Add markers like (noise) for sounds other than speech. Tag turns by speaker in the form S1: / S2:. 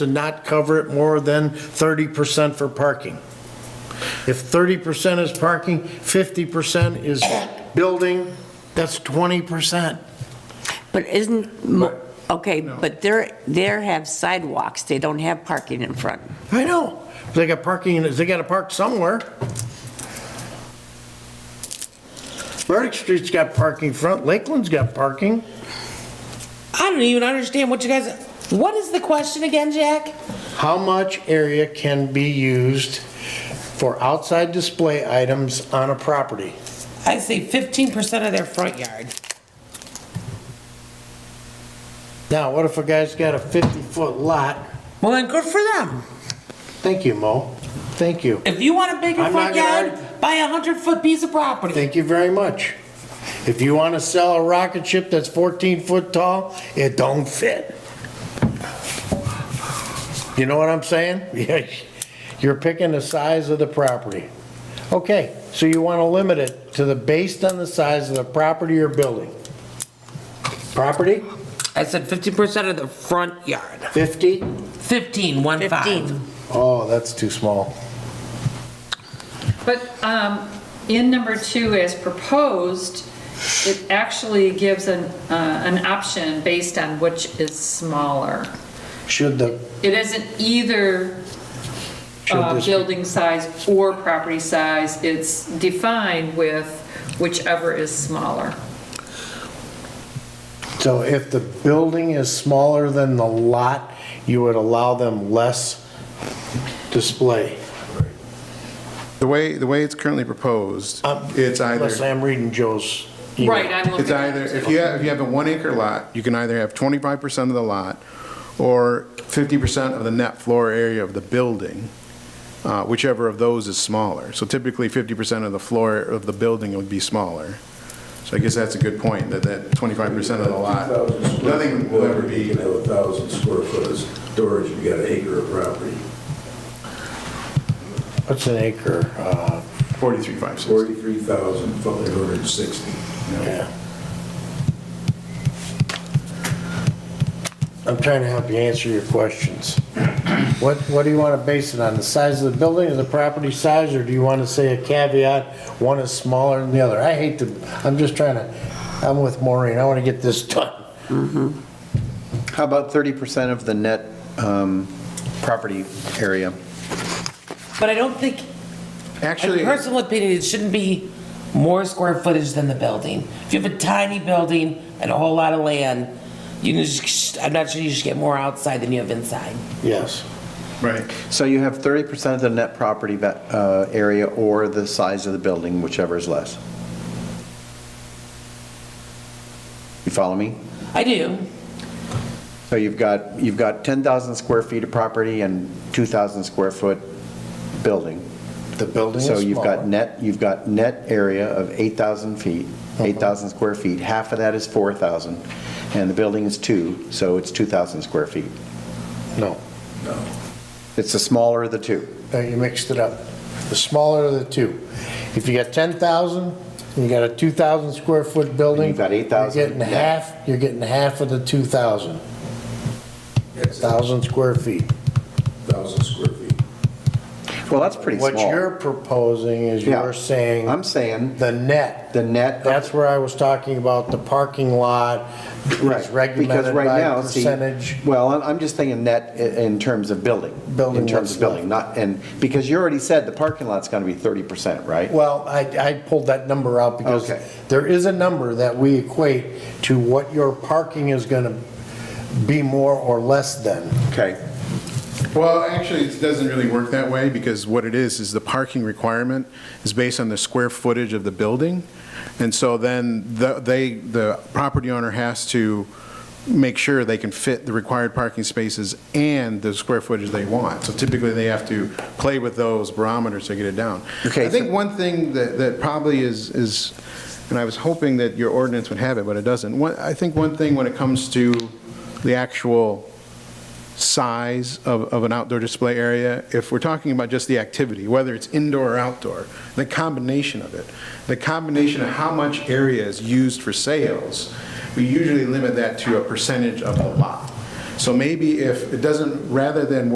S1: to not cover it more than 30% for parking. If 30% is parking, 50% is building, that's 20%.
S2: But isn't, mo- okay, but they're, they're have sidewalks, they don't have parking in front.
S1: I know, they got parking, they gotta park somewhere. Burdick Street's got parking front, Lakeland's got parking.
S3: I don't even understand what you guys. What is the question again, Jack?
S1: How much area can be used for outside display items on a property?
S3: I say 15% of their front yard.
S1: Now, what if a guy's got a 50-foot lot?
S3: Well, then good for them.
S1: Thank you, Mo. Thank you.
S3: If you want a bigger
S1: I'm not
S3: front
S1: gonna
S3: yard, buy a 100 foot piece of property.
S1: Thank you very much. If you want to sell a rocket ship that's 14 foot tall, it don't fit. You know what I'm saying? (laughs) Yeah, You're picking the size of the property. Okay, so you want to limit it to the, based on the size of the property or building. Property,
S3: I said 15% of the front yard.
S1: 50?
S3: 15, one
S2: 15.
S3: five.
S1: Oh, that's too small.
S4: But um, in number two, as proposed, it actually gives an, uh, an option based on which is smaller.
S1: Should the,
S4: It isn't either
S1: should
S4: uh,
S1: this,
S4: building size or property size, it's defined with whichever is smaller.
S1: so if the building is smaller than the lot, you would allow them less display?
S5: The way, the way it's currently proposed,
S1: Um,
S5: it's
S1: Unless
S5: either,
S1: I'm reading Joe's email.
S4: Right, I'm
S5: it's
S4: looking at
S5: either,
S4: it.
S5: if you have, if you have a one acre lot, you can either have 25% of the lot or 50% of the net floor area of the building, uh, whichever of those is smaller. So typically 50% of the floor of the building would be smaller. So I guess that's a good point, that that 25% of the lot,
S6: 2,000 square
S5: nothing
S6: foot
S5: will ever
S6: building,
S5: be,
S6: You can have a thousand square foot of storage, you got an acre of property,
S1: What's an acre? Uh,
S5: 43.560.
S6: forty-three thousand five hundred and sixty.
S1: yeah. I'm trying to help you answer your questions. What, what do you want to base it on? The size of the building or the property size? Or do you want to say a caveat, one is smaller than the other? I hate to, I'm just trying to, I'm with Maureen. I want to get this done.
S7: How about 30% of the net um, property area?
S3: But I don't think, in
S5: Actually,
S3: personal opinion, it shouldn't be more square footage than the building. If you have a tiny building and a whole lot of land, you can just, I'm not sure you should get more outside than you have inside.
S1: Yes.
S5: right.
S7: So you have 30% of the net property va- uh, area or the size of the building, whichever is less. You follow me?
S3: I do.
S7: So you've got, you've got 10,000 square feet of property and 2,000 square foot building.
S1: The building is
S7: So you've
S1: smaller.
S7: got net, you've got net area of 8,000 feet,
S1: Uh-huh.
S7: 8,000 square feet. Half of that is 4,000, and the building is two, so it's 2,000 square feet.
S1: No.
S7: It's the smaller of the two.
S1: Uh, You mixed it up. The smaller of the two. If you got 10,000, and you got a 2,000 square foot building.
S7: you've got 8,000.
S1: You're getting half, you're getting half of the 2,000,
S6: That's a
S1: 1,000 square feet.
S6: thousand square feet.
S7: Well, that's pretty small.
S1: What you're proposing is
S7: Yeah.
S1: you're saying
S7: I'm saying
S1: the net.
S7: the net,
S1: That's where I was talking about the parking lot
S7: right.
S1: is regulated
S7: Because right
S1: by
S7: now, see,
S1: percentage.
S7: Well, I'm- I'm just thinking net i- in terms of building.
S1: Building
S7: In terms
S1: what's
S7: of building, not, and, because you already said the parking lot's going to be 30%, right?
S1: Well, I, I pulled that number out because
S7: Okay.
S1: there is a number that we equate to what your parking is gonna be more or less than.
S7: Okay.
S5: Well, actually, it doesn't really work that way, because what it is, is the parking requirement is based on the square footage of the building, and so then the- they, the property owner has to make sure they can fit the required parking spaces and the square footage they want. So typically, they have to play with those barometers to get it down.
S7: Okay,
S5: I think
S7: so-
S5: one thing that, that probably is, is, and I was hoping that your ordinance would have it, but it doesn't. One, I think one thing when it comes to the actual size of, of an outdoor display area, if we're talking about just the activity, whether it's indoor or outdoor, the combination of it, the combination of how much area is used for sales, we usually limit that to a percentage of the lot. So maybe if, it doesn't, rather than